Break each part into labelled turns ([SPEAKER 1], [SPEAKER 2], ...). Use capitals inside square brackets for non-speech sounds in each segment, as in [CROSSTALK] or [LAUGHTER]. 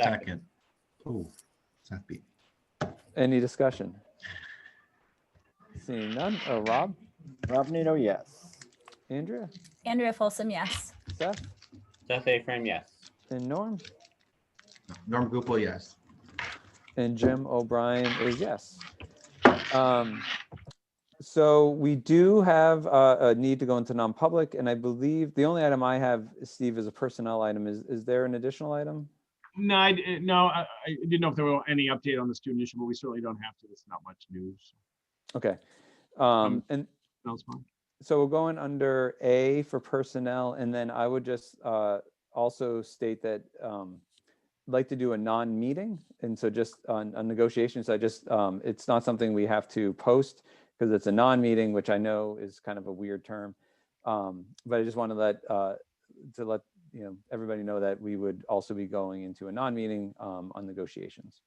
[SPEAKER 1] Second. Oh, Seth beat.
[SPEAKER 2] Any discussion? Seeing none. Oh, Rob,
[SPEAKER 3] Rob Nato, yes.
[SPEAKER 2] Andrea,
[SPEAKER 4] Andrea Folsom, yes.
[SPEAKER 2] Seth,
[SPEAKER 5] Seth A. Frame, yes.
[SPEAKER 2] and Norm,
[SPEAKER 1] me. Norm Gupel, yes.
[SPEAKER 2] and Jim O'Brien is yes. Um, So we do have uh, a need to go into non-public, and I believe the only item I have, Steve, is a personnel item. Is, is there an additional item?
[SPEAKER 6] No, I, di- no, I, I didn't know if there were any update on the student issue, but we certainly don't have to. There's not much news.
[SPEAKER 2] Okay. Um, And
[SPEAKER 6] That was fun.
[SPEAKER 2] So we're going under A for personnel, and then I would just uh, also state that um, I'd like to do a non-meeting, and so just on, on negotiations, I just, um, it's not something we have to post because it's a non-meeting, which I know is kind of a weird term. Um, But I just want to let, uh, to let, you know, everybody know that we would also be going into a non-meeting um, on negotiations.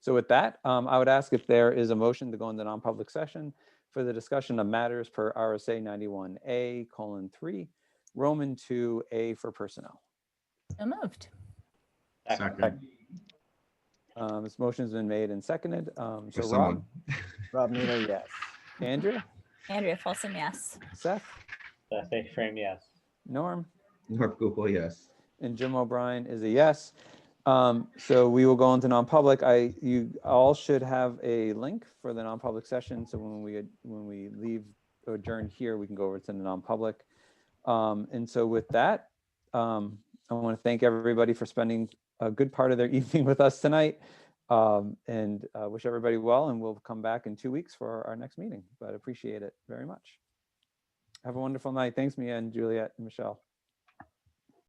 [SPEAKER 2] So with that, um, I would ask if there is a motion to go into non-public session for the discussion of matters per RSA 91A colon 3, Roman 2A for personnel.
[SPEAKER 4] So moved.
[SPEAKER 1] Second.
[SPEAKER 2] Um, This motion's been made and seconded. Um,
[SPEAKER 1] For
[SPEAKER 2] So
[SPEAKER 1] someone.
[SPEAKER 2] Rob,
[SPEAKER 3] Rob Nato, yes.
[SPEAKER 2] Andrea,
[SPEAKER 4] Andrea Folsom, yes.
[SPEAKER 2] Seth,
[SPEAKER 5] Seth A. Frame, yes.
[SPEAKER 2] Norm,
[SPEAKER 1] Norm Gupel, yes.
[SPEAKER 2] and Jim O'Brien is a yes. Um, So we will go into non-public. I, you all should have a link for the non-public session. So when we, when we leave or adjourn here, we can go over to the non-public. Um, And so with that, um, I want to thank everybody for spending a good part of their [LAUGHS] evening with us tonight. Um, And uh, wish everybody well, and we'll come back in two weeks for our next meeting, but appreciate it very much. Have a wonderful night. Thanks, Mia and Juliet and Michelle.